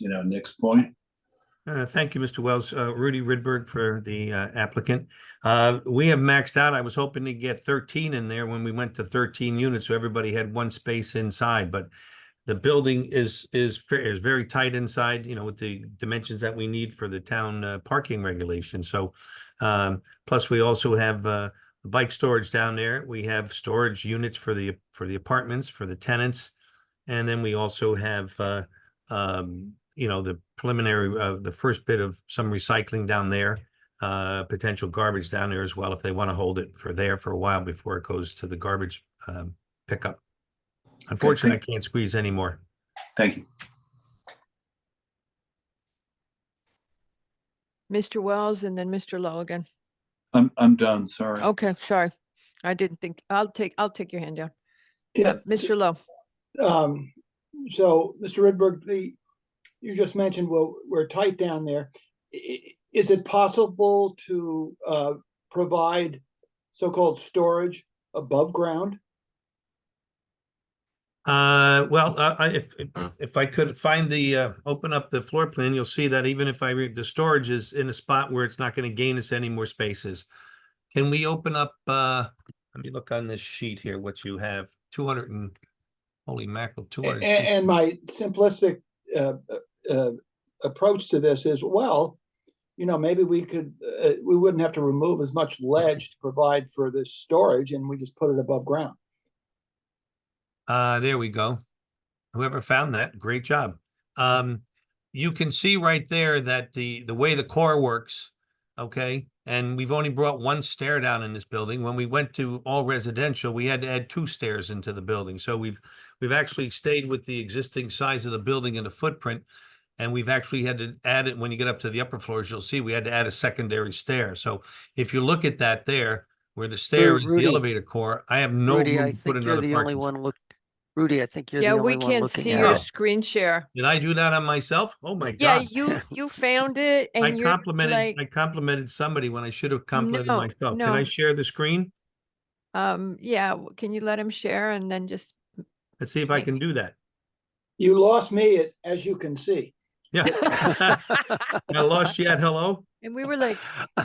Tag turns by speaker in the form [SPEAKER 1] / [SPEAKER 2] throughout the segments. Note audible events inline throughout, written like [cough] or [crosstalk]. [SPEAKER 1] you know, Nick's point.
[SPEAKER 2] Uh, Thank you, Mr. Wells. Uh, Rudy Ridberg for the uh, applicant. Uh, We have maxed out. I was hoping to get 13 in there when we went to 13 units, so everybody had one space inside, but the building is, is, fa- is very tight inside, you know, with the dimensions that we need for the town uh, parking regulation. So um, plus we also have uh, bike storage down there. We have storage units for the, for the apartments, for the tenants. And then we also have uh, um, you know, the preliminary, uh, the first bit of some recycling down there. Uh, potential garbage down there as well, if they want to hold it for there for a while before it goes to the garbage, um, pickup. Unfortunately, I can't squeeze anymore.
[SPEAKER 1] Thank you.
[SPEAKER 3] Mr. Wells and then Mr. Lowe again.
[SPEAKER 1] I'm, I'm done, sorry.
[SPEAKER 3] Okay, sorry. I didn't think, I'll take, I'll take your hand down.
[SPEAKER 4] Yeah,
[SPEAKER 3] Uh, Mr. Lowe,
[SPEAKER 4] um, so, Mr. Ridberg, the, you just mentioned, well, we're tight down there. I- i- Is it possible to, uh, provide so-called storage above ground?
[SPEAKER 2] Uh, well, uh, I, if, if- if I could find the, uh, open up the floor plan, you'll see that even if I read, the storage is in a spot where it's not going to gain us any more spaces. Can we open up, uh, let me look on this sheet here, what you have, two hundred and, holy mackerel, two
[SPEAKER 4] A-
[SPEAKER 2] hundred.
[SPEAKER 4] a- and my simplistic, uh, uh, approach to this is, well, you know, maybe we could, uh, we wouldn't have to remove as much ledge to provide for this storage and we just put it above ground.
[SPEAKER 2] Uh, there we go. Whoever found that, great job. Um, you can see right there that the, the way the core works, okay? And we've only brought one stair down in this building. When we went to all residential, we had to add two stairs into the building. So we've, we've actually stayed with the existing size of the building and the footprint. And we've actually had to add it, when you get up to the upper floors, you'll see we had to add a secondary stair. So if you look at that there, where the stair is the
[SPEAKER 5] Rudy.
[SPEAKER 2] elevator core, I have no
[SPEAKER 5] Rudy, I
[SPEAKER 2] room to put
[SPEAKER 5] think you're
[SPEAKER 2] another
[SPEAKER 5] the only
[SPEAKER 2] parking space.
[SPEAKER 5] one look, Rudy, I think you're the
[SPEAKER 3] yeah, we
[SPEAKER 5] only one
[SPEAKER 3] can't
[SPEAKER 5] looking
[SPEAKER 3] see
[SPEAKER 5] at
[SPEAKER 3] your
[SPEAKER 5] it.
[SPEAKER 3] screen share.
[SPEAKER 2] Did I do that on myself? Oh my
[SPEAKER 3] Yeah,
[SPEAKER 2] god.
[SPEAKER 3] you, you found it
[SPEAKER 2] I
[SPEAKER 3] and you're
[SPEAKER 2] complimented,
[SPEAKER 3] like,
[SPEAKER 2] I complimented somebody when I should have complimented
[SPEAKER 3] No,
[SPEAKER 2] myself. Can I
[SPEAKER 3] no.
[SPEAKER 2] share the screen?
[SPEAKER 3] um, yeah, w- can you let him share and then just,
[SPEAKER 2] Let's see if I
[SPEAKER 3] Thank
[SPEAKER 2] can do that.
[SPEAKER 4] You lost me, at- as you can
[SPEAKER 3] [laughs]
[SPEAKER 4] see.
[SPEAKER 2] Yeah. I lost you at hello?
[SPEAKER 3] and we were like,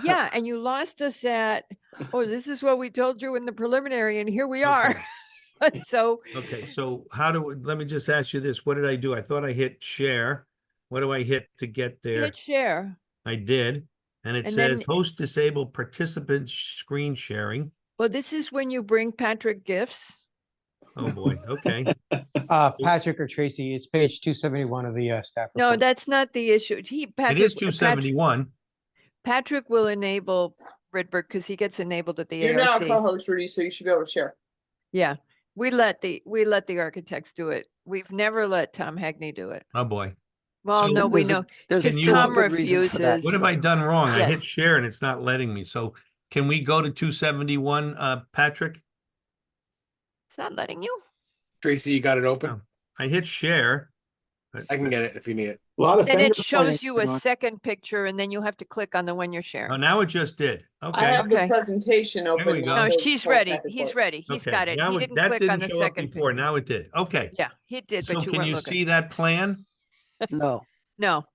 [SPEAKER 3] yeah, and you lost us at, oh, this is what we told you in the preliminary and here we are. [laughs]
[SPEAKER 2] Okay.
[SPEAKER 3] So, [laughs]
[SPEAKER 2] Okay, so how do, let me just ask you this. What did I do? I thought I hit share. What do I hit to get there?
[SPEAKER 3] hit share.
[SPEAKER 2] I did. And it
[SPEAKER 3] And
[SPEAKER 2] says
[SPEAKER 3] then-
[SPEAKER 2] host disabled participant sh- screen sharing.
[SPEAKER 3] Well, this is when you bring Patrick gifts.
[SPEAKER 2] Oh boy,
[SPEAKER 3] [laughs]
[SPEAKER 2] okay.
[SPEAKER 6] Uh, Patrick or Tracy, it's page two seventy-one of the uh, staff.
[SPEAKER 3] No,
[SPEAKER 6] report.
[SPEAKER 3] that's not the issue. He,
[SPEAKER 2] It
[SPEAKER 3] Patrick.
[SPEAKER 2] is
[SPEAKER 3] w-
[SPEAKER 2] two
[SPEAKER 3] Pat-
[SPEAKER 2] seventy-one.
[SPEAKER 3] Patrick will enable Ridberg because he gets enabled at the
[SPEAKER 7] You're now a
[SPEAKER 3] ARC.
[SPEAKER 7] co-host, Rudy, so you should be able to share.
[SPEAKER 3] Yeah, we let the, we let the architects do it. We've never let Tom Hagney do it.
[SPEAKER 2] Oh boy.
[SPEAKER 3] Well,
[SPEAKER 2] So
[SPEAKER 3] no, we
[SPEAKER 5] there's a-
[SPEAKER 3] know.
[SPEAKER 5] There's
[SPEAKER 2] Can
[SPEAKER 5] a
[SPEAKER 2] you-
[SPEAKER 5] stupid
[SPEAKER 2] Tom
[SPEAKER 5] reason for that.
[SPEAKER 2] What have I done wrong? I hit
[SPEAKER 3] Yes.
[SPEAKER 2] share and it's not letting me. So can we go to two seventy-one, uh, Patrick?
[SPEAKER 3] It's not letting you.
[SPEAKER 8] Tracy, you got it
[SPEAKER 2] Oh.
[SPEAKER 8] open?
[SPEAKER 2] I hit share. but-
[SPEAKER 8] I can get it if you need it.
[SPEAKER 4] A lot of
[SPEAKER 3] Then it
[SPEAKER 4] fingers pointing.
[SPEAKER 3] shows you a second picture and then you have to click on the one you're
[SPEAKER 2] Oh,
[SPEAKER 3] sharing.
[SPEAKER 2] now it just did.
[SPEAKER 7] I
[SPEAKER 2] Okay.
[SPEAKER 3] have
[SPEAKER 7] have the
[SPEAKER 3] Okay.
[SPEAKER 7] presentation
[SPEAKER 2] we
[SPEAKER 7] open.
[SPEAKER 2] go.
[SPEAKER 7] now,
[SPEAKER 3] No,
[SPEAKER 7] so
[SPEAKER 3] she's
[SPEAKER 7] we'll
[SPEAKER 3] ready.
[SPEAKER 7] back and
[SPEAKER 3] He's
[SPEAKER 7] forth.
[SPEAKER 3] ready. He's
[SPEAKER 2] okay.
[SPEAKER 3] got it.
[SPEAKER 2] Now
[SPEAKER 3] He
[SPEAKER 2] it-
[SPEAKER 3] didn't
[SPEAKER 2] that
[SPEAKER 3] click on the
[SPEAKER 2] show up
[SPEAKER 3] second.
[SPEAKER 2] Before,
[SPEAKER 3] pic-
[SPEAKER 2] now it did. Okay.
[SPEAKER 3] Yeah, he did,
[SPEAKER 2] So
[SPEAKER 3] but you
[SPEAKER 2] can
[SPEAKER 3] weren't
[SPEAKER 2] you
[SPEAKER 3] looking.
[SPEAKER 2] see that plan?
[SPEAKER 5] No,
[SPEAKER 3] No,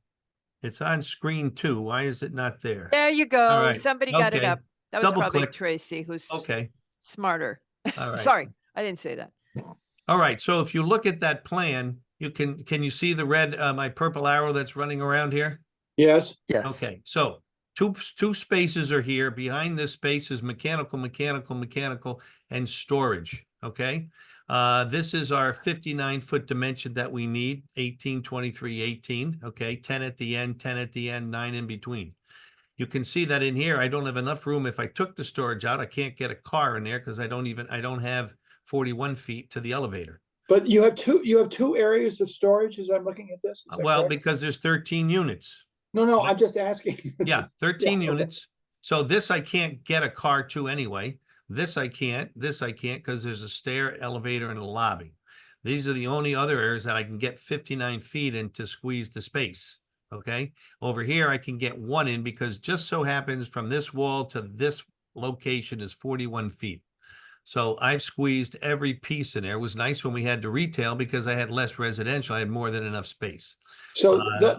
[SPEAKER 2] It's on screen two. Why is it not there?
[SPEAKER 3] there you go.
[SPEAKER 2] right,
[SPEAKER 3] Somebody got it
[SPEAKER 2] okay.
[SPEAKER 3] up. That was
[SPEAKER 2] Double
[SPEAKER 3] probably
[SPEAKER 2] click.
[SPEAKER 3] Tracy who's
[SPEAKER 2] Okay,
[SPEAKER 3] smarter.
[SPEAKER 2] all right.
[SPEAKER 3] Sorry, I didn't say that.
[SPEAKER 2] All right, so if you look at that plan, you can, can you see the red, uh, my purple arrow that's running around here?
[SPEAKER 4] Yes.
[SPEAKER 5] yes.
[SPEAKER 2] Okay, so two, p- two spaces are here. Behind this space is mechanical, mechanical, mechanical, and storage, okay? Uh, this is our fifty-nine foot dimension that we need, 18, 23, 18. okay? Ten at the end, ten at the end, nine in between. You can see that in here, I don't have enough room. If I took the storage out, I can't get a car in there because I don't even, I don't have forty-one feet to the elevator.
[SPEAKER 4] But you have two, you have two areas of storage as I'm looking at this? is
[SPEAKER 2] Uh,
[SPEAKER 4] that
[SPEAKER 2] Well,
[SPEAKER 4] correct?
[SPEAKER 2] because there's thirteen units.
[SPEAKER 4] No, no, I'm just asking. [laughs]
[SPEAKER 2] Yeah, thirteen
[SPEAKER 4] okay.
[SPEAKER 2] units. So this I can't get a car to anyway. This I can't, this I can't, because there's a stair, elevator, and a lobby. These are the only other areas that I can get fifty-nine feet in to squeeze the space, okay? Over here, I can get one in because just so happens from this wall to this location is forty-one feet. So I've squeezed every piece in there. It was nice when we had to retail because I had less residential. I had more than enough space.
[SPEAKER 4] So
[SPEAKER 2] Uh,
[SPEAKER 4] the,